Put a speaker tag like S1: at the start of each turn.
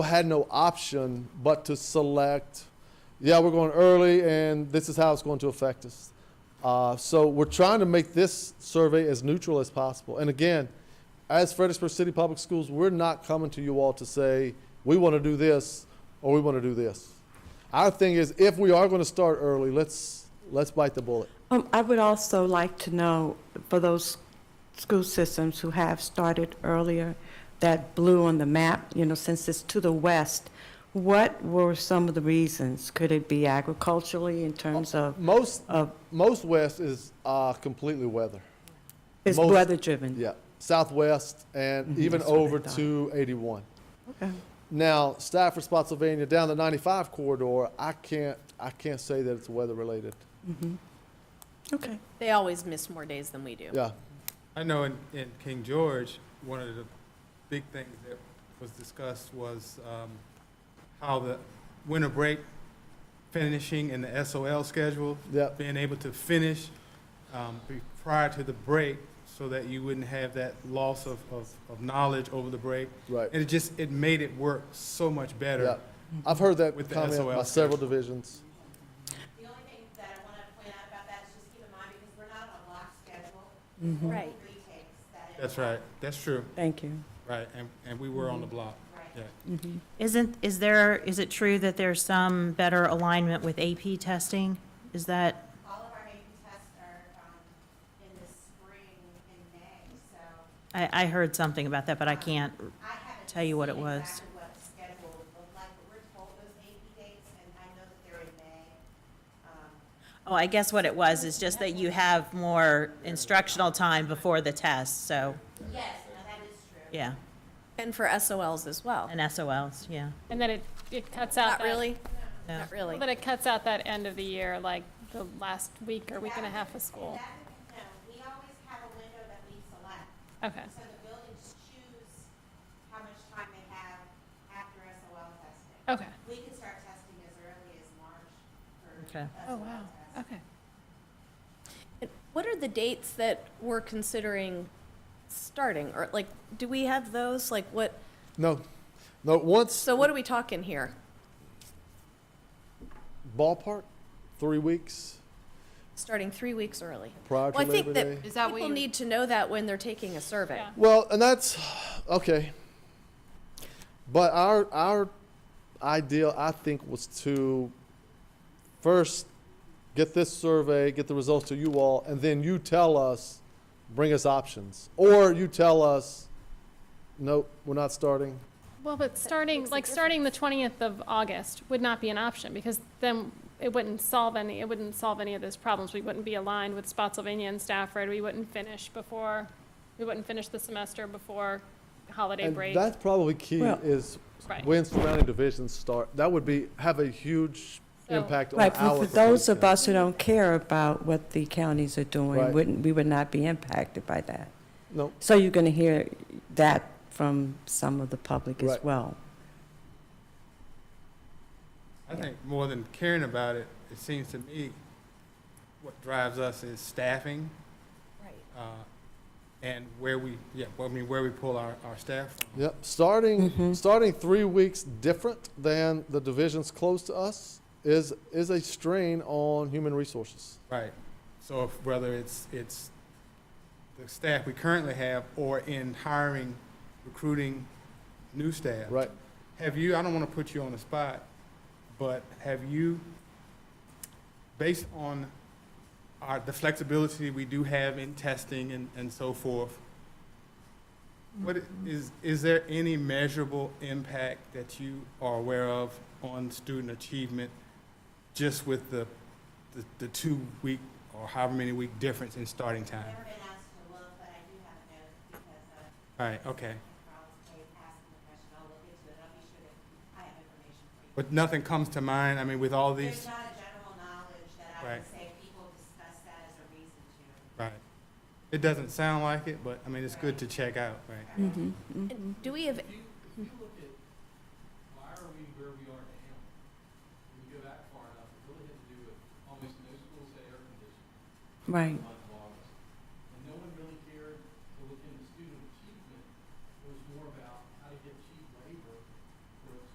S1: had no option but to select, yeah, we're going early and this is how it's going to affect us. Uh, so we're trying to make this survey as neutral as possible. And again, as Fredericksburg City Public Schools, we're not coming to you all to say, we want to do this or we want to do this. Our thing is, if we are going to start early, let's, let's bite the bullet.
S2: Um, I would also like to know, for those school systems who have started earlier, that blue on the map, you know, since it's to the west, what were some of the reasons? Could it be agriculturally in terms of,
S1: Most,
S2: of,
S1: most west is uh, completely weather.
S2: is
S1: Most-
S2: weather-driven?
S1: Yeah, southwest and
S3: Mm-hmm.
S2: Mhm.
S1: even
S2: That's what I
S1: over
S2: thought.
S1: to 81.
S2: Okay.
S1: Now, Stafford, Spotsylvania, down the 95 corridor, I can't, I can't say that it's weather related.
S2: Mhm. Okay.
S3: They always miss more days than we do.
S1: Yeah,
S4: I know in, in King George, one of the big things that was discussed was um, how the winter break finishing in the SOL schedule,
S1: yeah,
S4: being able to finish um, be- prior to the break so that you wouldn't have that loss of, of, of knowledge over the break.
S1: right.
S4: And it just, it made it work so much
S1: Yeah.
S4: better.
S1: I've heard that
S4: With the
S1: comment by
S4: SOL
S1: several divisions.
S5: The only thing that I want to point out about that is just keep in mind, because we're not on a lock schedule,
S2: Mhm.
S3: Right.
S5: retakes, that is
S4: That's right, that's true,
S2: Thank you.
S4: right, and, and we were on the block,
S5: right.
S4: yeah.
S2: Mhm.
S6: Isn't, is there, is it true that there's some better alignment with AP testing? Is that,
S5: All of our AP tests are um, in the spring in May, so
S6: I, I heard something about that, but I can't,
S5: I haven't.
S6: Tell you what it
S5: seen
S6: was.
S5: Exactly what the schedule would look like, but we're told those AP dates, and I know that they're in May. Um,
S6: oh, I guess what it was is just that you have more instructional time before the test, so,
S5: Yes, no, that is true.
S6: yeah,
S3: And for SOLs as well.
S6: and SOLs, yeah.
S7: And then it, it cuts out
S3: Not
S7: that.
S3: really,
S6: No.
S3: not really.
S7: But it cuts out that end of the year, like the last week or week and a half of school.
S5: That, no, we always have a window that we select.
S7: Okay,
S5: So the buildings choose how much time they have after SOL testing.
S7: okay.
S5: We can start testing as early as March for
S6: Okay.
S5: SOL
S7: Oh, wow,
S5: tests.
S7: okay.
S3: And What are the dates that we're considering starting? Or like, do we have those? Like what,
S1: No, no, once
S3: so what are we talking here?
S1: ballpark, three weeks
S3: Starting three weeks early?
S1: prior to
S3: Well, I think
S1: Labor Day.
S3: that
S8: Is that what
S3: people
S8: you're-
S3: need to know that when they're taking a survey.
S7: Yeah.
S1: Well, and that's, okay. But our, our ideal, I think, was to first get this survey, get the results to you all, and then you tell us, bring us options. Or you tell us, nope, we're not starting.
S7: Well, but starting,
S3: makes a
S7: like, starting the twentieth of August would not be an option, because then it wouldn't solve any, it wouldn't solve any of those problems. We wouldn't be aligned with Spotsylvania and Stafford, we wouldn't finish before, we wouldn't finish the semester before holiday
S1: And
S7: break.
S1: that's probably key
S2: Well-
S1: is
S7: Right.
S1: when surrounding divisions start. That would be, have a huge
S7: So-
S1: impact on our.
S2: Right, for for those of us who don't care about what the counties are
S1: Right.
S2: doing, wouldn't, we would not be impacted by that.
S1: No,
S2: So you're going to hear that from some of the public as
S1: Right.
S2: well.
S4: I think more than caring about it, it seems to me what drives us is staffing
S3: Right.
S4: uh, and where we, yeah, well, I mean, where we pull our, our staff from.
S1: Yep, starting starting three weeks different than the divisions close to us is is a strain on human resources.
S4: Right. So if, whether it's, it's the staff we currently have or in hiring, recruiting new staff.
S1: Right.
S4: Have you, I don't want to put you on the spot, but have you, based on our, the flexibility we do have in testing and, and so forth, what i- is, is there any measurable impact that you are aware of on student achievement just with the, the, the two-week or however many week difference in starting
S5: I've
S4: time?
S5: never been asked to look, but I do have a note because uh, of
S4: All right, okay.
S5: Carl's case asking the question. I'll look into it. I'll be sure that I have information for you.
S4: But nothing comes to mind, I mean, with all
S5: There's
S4: these,
S5: not a general knowledge that I would
S4: Right.
S5: say people discuss that as a reason to.
S4: right. It doesn't sound like it, but, I mean, it's good to check out, right?
S2: Mm-hmm.
S3: And Do we have,
S9: If you look at, why are we where we are now? When you go back far enough, it really had to do with almost no schools had air conditioning.
S2: Right.
S9: Um,